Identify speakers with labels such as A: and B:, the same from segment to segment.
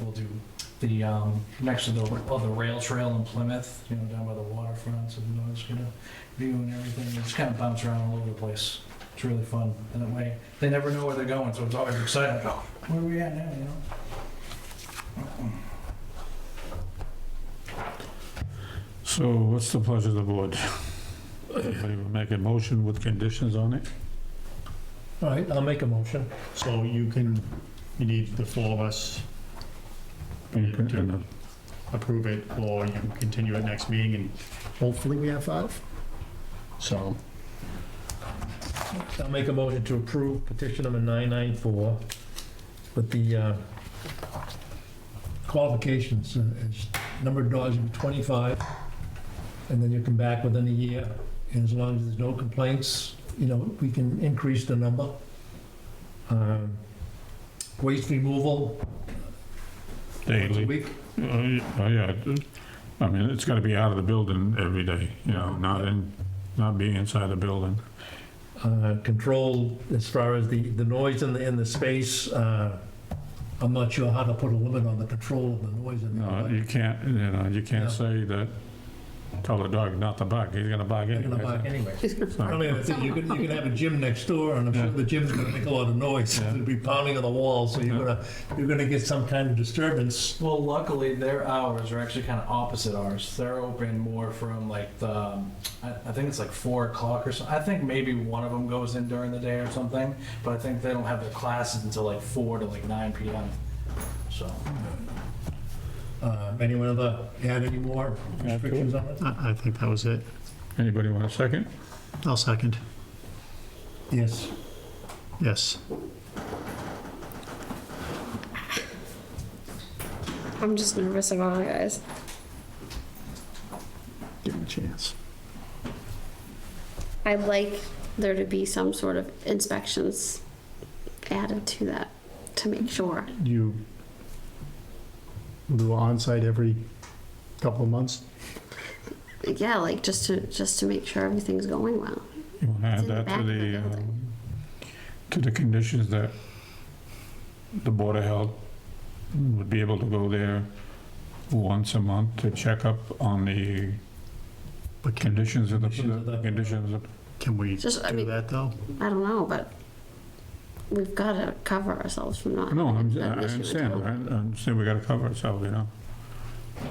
A: we'll do the, um, next to the, of the rail trail in Plymouth, you know, down by the waterfront, and I was gonna view and everything, just kind of bounce around all over the place. It's really fun, in that way, they never know where they're going, so it's always exciting, oh, where are we at now, you know?
B: So what's the pleasure of the board? Anybody will make a motion with conditions on it?
C: All right, I'll make a motion.
D: So you can, you need the four of us
B: And, uh,
D: approve it, or you can continue it next meeting, and hopefully we have five. So,
C: I'll make a motion to approve petition number 994 with the uh, qualifications, uh, it's number of dogs would be 25, and then you come back within a year, and as long as there's no complaints, you know, we can increase the number. Um, Waste removal. once
B: Daily.
C: a week.
B: Oh, yeah, oh, yeah, it- I mean, it's gotta be out of the building every day, you know, not in, not be inside the building.
C: uh, control as far as the, the noise in the, in the space. uh, I'm not sure how to put a limit on the control of the noise in
B: No,
C: there.
B: you can't, you know, you
C: Yeah.
B: can't say that, tell the dog not to bark, he's gonna bark
C: They're gonna
B: anyway.
C: bark anyway.
B: So-
C: I mean, the thing, you can, you can have a gym next door, and I'm sure
B: Yeah.
C: the gym's gonna make a lot of noise.
B: Yeah.
C: It'll be pounding on the wall, so you're gonna, you're gonna get some kind of disturbance.
A: Well, luckily, their hours are actually kind of opposite ours. They're open more from like the, um, I, I think it's like four o'clock or so. I think maybe one of them goes in during the day or something, but I think they don't have their classes until like four to like nine p.m. So
C: Uh, Anyone other, add any more
B: Yeah, cool.
C: restrictions on it?
D: I, I think that was it.
B: Anybody want a second?
D: I'll second,
C: Yes.
D: yes.
E: I'm just nervous about it, guys.
D: Give him a chance.
E: I'd like there to be some sort of inspections added to that to make sure.
D: You do on-site every couple of months?
E: Yeah, like just to just to make sure everything's going well.
B: You wanna add
E: It's in the
B: that
E: back
B: to
E: of the
B: the, uh,
E: building.
B: to the conditions that the Board of Health would be able to go there once a month to check up on the
D: But can,
B: conditions of the,
C: Conditions of the-
B: conditions of,
D: can we do
E: Just, I mean-
D: that, though?
E: I don't know, but we've got to cover ourselves from not.
B: no, I'm,
E: having
B: I
E: an issue with
B: understand, I
E: town.
B: understand we gotta cover ourselves, you know?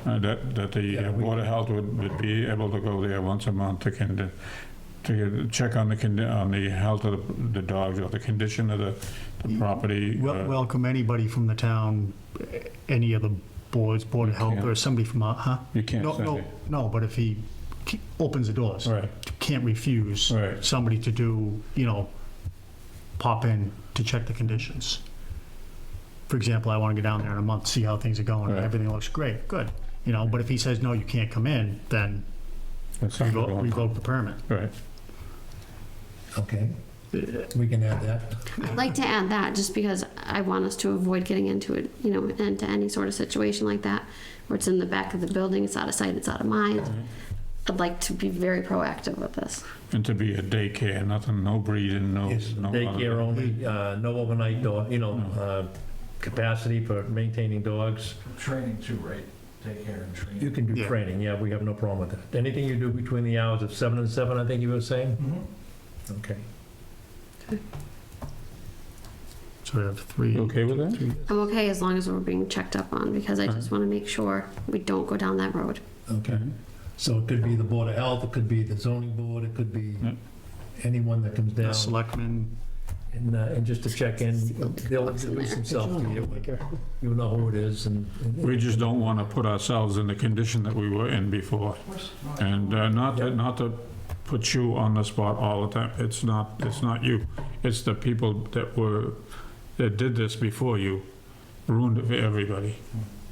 B: Uh, That, that the
C: Yeah,
B: uh,
C: we-
B: Board of Health would, would be able to go there once a month to can, to check on the, condi- on the health of the the dogs or the condition of the,
C: Mm.
B: the property.
D: Wel-
B: uh,
D: Welcome anybody from the town, eh, any of the boards, Board of Health,
B: can't.
D: or somebody from, our- huh?
B: You can't
D: No, no,
B: say.
D: no, but if he ke- opens the doors,
B: Right,
D: can't refuse
B: right.
D: somebody to do, you know, pop in to check the conditions. For example, I want to go down there in a month, see how things are going,
B: Right.
D: everything looks great, good, you know, but if he says, no, you can't come in, then
B: That's not
D: revoke
B: going-
D: revoke the permit.
B: Right.
C: Okay, we can add that.
E: I'd like to add that just because I want us to avoid getting into it, you know, into any sort of situation like that where it's in the back of the building, it's out of sight, it's out of mind. I'd like to be very proactive with this.
B: And to be a daycare, nothing, no breeding, no.
C: Yes,
B: no
C: daycare only, uh, no overnight door, you know,
B: No.
C: uh, capacity for maintaining dogs.
A: training too, right? Take care and
C: You
A: training.
C: can do
D: Yeah.
C: training, yeah, we have no problem with that. Anything you do between the hours of seven and seven, I think you were saying?
A: Mhm.
C: Okay.
D: So we have three.
B: You okay with that?
D: three-
E: I'm okay as long as we're being checked up on because I just want to make sure we don't go down that road.
C: Okay, so it could be the Board of Health, it could be the zoning board, it could be
B: Yeah.
C: anyone that comes
D: The
C: down.
D: selectmen,
C: And, uh, and just to check in, they'll introduce themselves to you, you know who it is and. and-
B: We just don't want to put ourselves in the condition that we were in before.
A: Of course. No,
B: And uh, not to, not to put you on the spot all the time. It's not, it's not you. It's the people that were, that did this before you ruined it for everybody,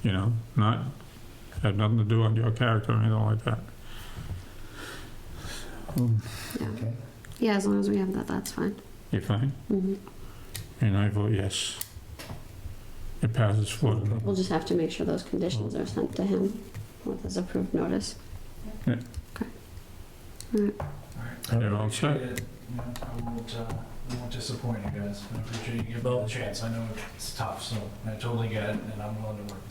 B: you know? Not, had nothing to do on your character or anything like that.
C: Okay.
E: Yeah, as long as we have that, that's fine.
B: You fine?
E: hmm
B: And I vote yes. It passes four to
E: We'll just have to make sure those conditions are sent to him with his approved notice.
B: They're all set.
A: appreciate it. You know, I won't, uh, I won't disappoint you guys. I appreciate you giving me the chance. I know it's tough, so I totally get it, and I'm willing to work with you.